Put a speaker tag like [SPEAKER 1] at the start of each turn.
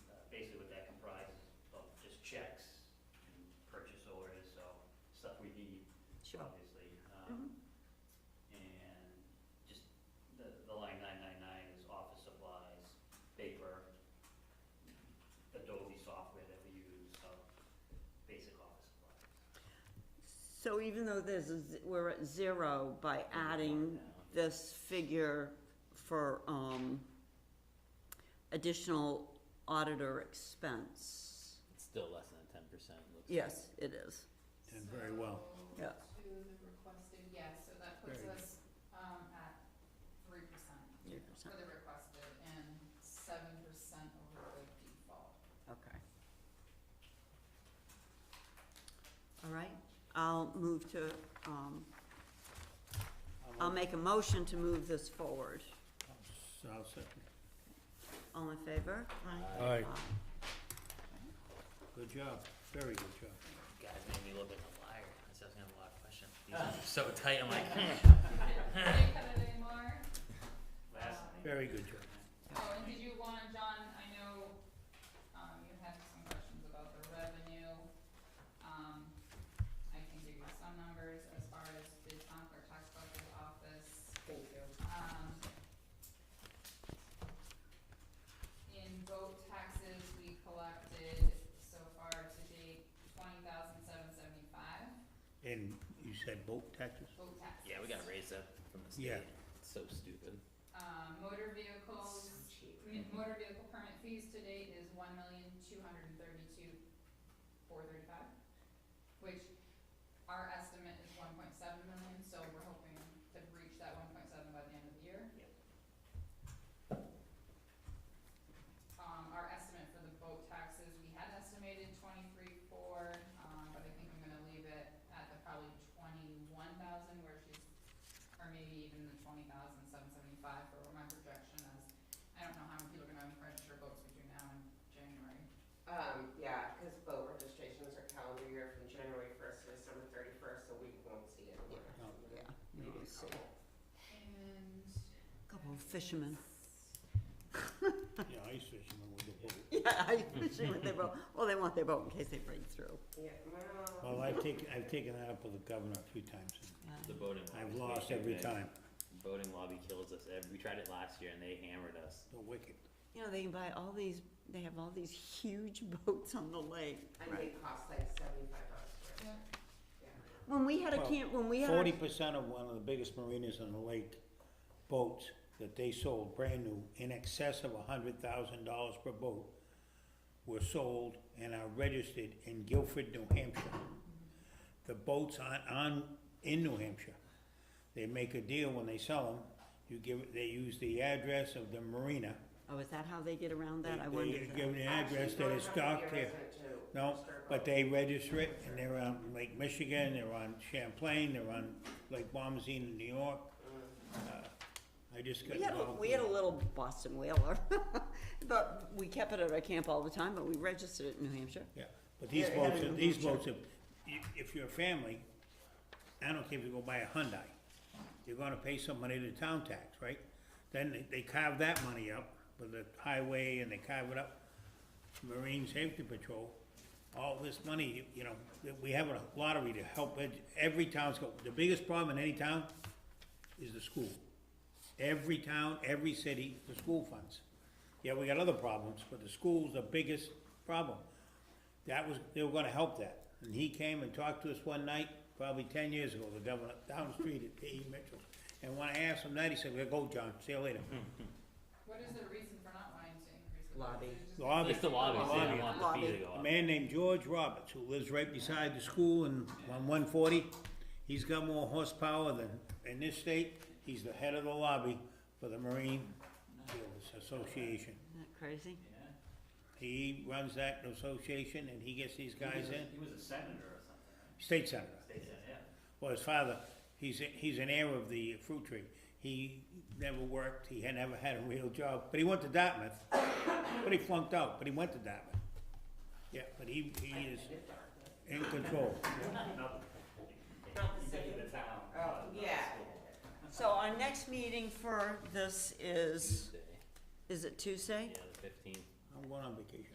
[SPEAKER 1] uh,
[SPEAKER 2] Sure.
[SPEAKER 1] obviously.
[SPEAKER 2] Mm-hmm.
[SPEAKER 1] um, And just the, the line nine nine nine is office supplies, paper, Adobe software that we use, so basic office supplies.
[SPEAKER 2] So even though there's, a z- we're at zero by adding this figure for, um, additional auditor expense?
[SPEAKER 3] It's still less than ten percent, looks like.
[SPEAKER 2] Yes, it is.
[SPEAKER 4] Did very well.
[SPEAKER 2] Yeah.
[SPEAKER 5] So, To the requested, yes, so that puts
[SPEAKER 4] Very
[SPEAKER 5] us, um, at three percent
[SPEAKER 2] Three
[SPEAKER 5] for
[SPEAKER 2] percent.
[SPEAKER 5] the requested and seven percent over the default.
[SPEAKER 2] Okay. All right, I'll move to, um, I'll make a motion to move this forward.
[SPEAKER 4] So I'll second.
[SPEAKER 2] All in favor?
[SPEAKER 4] Aye.
[SPEAKER 2] Aye.
[SPEAKER 4] Good job, very good job.
[SPEAKER 3] You guys made me look like a liar, I was asking a lot of questions, these are so tight, I'm like,
[SPEAKER 5] Did you cut it anymore?
[SPEAKER 1] Last
[SPEAKER 5] Um,
[SPEAKER 4] Very good job.
[SPEAKER 5] Oh, and did you wanna, John, I know, um, you had some questions about the revenue. Um, I can give you some numbers as far as the town clerk tax collector's office. Thank you. Um, in boat taxes, we collected so far to date twenty thousand seven seventy-five,
[SPEAKER 4] And you said boat taxes?
[SPEAKER 5] boat taxes.
[SPEAKER 3] yeah, we gotta raise that from the
[SPEAKER 4] Yeah.
[SPEAKER 3] state, It's so stupid.
[SPEAKER 5] Um, motor vehicles, m- motor vehicle permit fees to date is one million, two hundred and thirty-two, four thirty-five, which our estimate is one point seven million, so we're hoping to reach that one point seven by the end of the year.
[SPEAKER 1] Yep.
[SPEAKER 5] Um, our estimate for the boat taxes, we had estimated twenty-three, four, um, but I think I'm gonna leave it at the probably twenty-one thousand where she's or maybe even the twenty thousand seven seventy-five for what my projection is. I don't know how many people are gonna register boats between now and January.
[SPEAKER 6] Um, yeah, because boat registrations are calendar year from January first to December thirty-first, so we won't see it. We're
[SPEAKER 4] No.
[SPEAKER 6] not seeing
[SPEAKER 2] Yeah,
[SPEAKER 6] it.
[SPEAKER 2] you will see.
[SPEAKER 5] And.
[SPEAKER 2] Couple of fishermen.
[SPEAKER 4] Yeah, ice fishermen with a boat.
[SPEAKER 2] Yeah, I fishing with their boat, well, they want their boat in case they break through.
[SPEAKER 6] Yeah, well.
[SPEAKER 4] Well, I've taken, I've taken that up with the governor a few times. and
[SPEAKER 3] The voting
[SPEAKER 4] I've
[SPEAKER 3] lobby's
[SPEAKER 4] lost
[SPEAKER 3] making
[SPEAKER 4] every
[SPEAKER 3] it.
[SPEAKER 4] time.
[SPEAKER 3] Voting lobby kills us, Ev- we tried it last year and they hammered us.
[SPEAKER 4] The wicked.
[SPEAKER 2] You know, they can buy all these, they have all these huge boats on the lake.
[SPEAKER 6] And they cost like seventy-five dollars for it.
[SPEAKER 5] Yeah.
[SPEAKER 6] Yeah.
[SPEAKER 2] When we had a
[SPEAKER 4] Well,
[SPEAKER 2] camp, when we had our
[SPEAKER 4] Forty percent of one of the biggest marinas on the lake, boats that they sold brand new, in excess of a hundred thousand dollars per boat, were sold and are registered in Guilford, New Hampshire. The boats aren't on, in New Hampshire. They make a deal when they sell them, you give, they use the address of the marina.
[SPEAKER 2] Oh, is that how they get around that? I
[SPEAKER 4] They-
[SPEAKER 2] wondered
[SPEAKER 4] They
[SPEAKER 2] that.
[SPEAKER 4] give an address
[SPEAKER 6] Actually,
[SPEAKER 4] that
[SPEAKER 6] you
[SPEAKER 4] is
[SPEAKER 6] don't have to
[SPEAKER 4] docked
[SPEAKER 6] be a
[SPEAKER 4] here.
[SPEAKER 6] resident to
[SPEAKER 4] No,
[SPEAKER 6] register a
[SPEAKER 4] but
[SPEAKER 6] boat.
[SPEAKER 4] they register it, and they're on Lake Michigan, they're on Champlain, they're on Lake Bombazine in New York. Uh, I just got
[SPEAKER 2] We had, a-
[SPEAKER 4] involved.
[SPEAKER 2] we had a
[SPEAKER 4] with it.
[SPEAKER 2] little Boston whaler, but we kept it at our camp all the time, but we registered it in New Hampshire.
[SPEAKER 4] Yeah, but these
[SPEAKER 2] Yeah, it had
[SPEAKER 4] boats,
[SPEAKER 2] a
[SPEAKER 4] are-
[SPEAKER 2] new
[SPEAKER 4] these
[SPEAKER 2] picture.
[SPEAKER 4] boats, are- i- if you're a family, I don't care if you go buy a Hyundai, you're gonna pay some money to town tax, right? Then they- they carve that money up with the highway and they carve it up, Marine Safety Patrol. All this money, you- you know, that we have a lottery to help, ed- every town's, go- the biggest problem in any town is the school. Every town, every city, the school funds. Yeah, we got other problems, but the school's the biggest problem. That was, they were gonna help that, and he came and talked to us one night, probably ten years ago, the governor, down the street at P.E. Mitchell. And when I asked him that, he said, well, go, John, see you later.
[SPEAKER 5] What is the reason for not wanting to increase the
[SPEAKER 6] Lobby.
[SPEAKER 5] taxes? Just-
[SPEAKER 4] Lobby.
[SPEAKER 3] It's the lobby, so they don't
[SPEAKER 4] Lobby.
[SPEAKER 3] want the fee to
[SPEAKER 2] Lobby.
[SPEAKER 3] go up.
[SPEAKER 4] A man named George Roberts, who lives right beside the school in, on one forty, he's got more horsepower than, in this state, he's the head of the lobby for the Marine Dealers Association.
[SPEAKER 2] Isn't that crazy?
[SPEAKER 1] Yeah.
[SPEAKER 4] He runs that association and he gets these guys in,
[SPEAKER 1] He was a senator or something, right?
[SPEAKER 4] state senator.
[SPEAKER 1] State senator, yeah.
[SPEAKER 4] Well, his father, he's, he's an heir of the fruit tree. He never worked, he had never had a real job, but he went to Dartmouth. But he flunked out, but he went to Dartmouth. Yeah, but he, he is in control.
[SPEAKER 1] Not
[SPEAKER 6] Not the
[SPEAKER 1] Maybe
[SPEAKER 6] same.
[SPEAKER 1] the town.
[SPEAKER 6] Oh,
[SPEAKER 1] but not the
[SPEAKER 6] yeah.
[SPEAKER 1] school.
[SPEAKER 2] So our next meeting for this is,
[SPEAKER 3] Tuesday.
[SPEAKER 2] is it Tuesday?
[SPEAKER 3] Yeah, the fifteenth.
[SPEAKER 4] I'm going on vacation.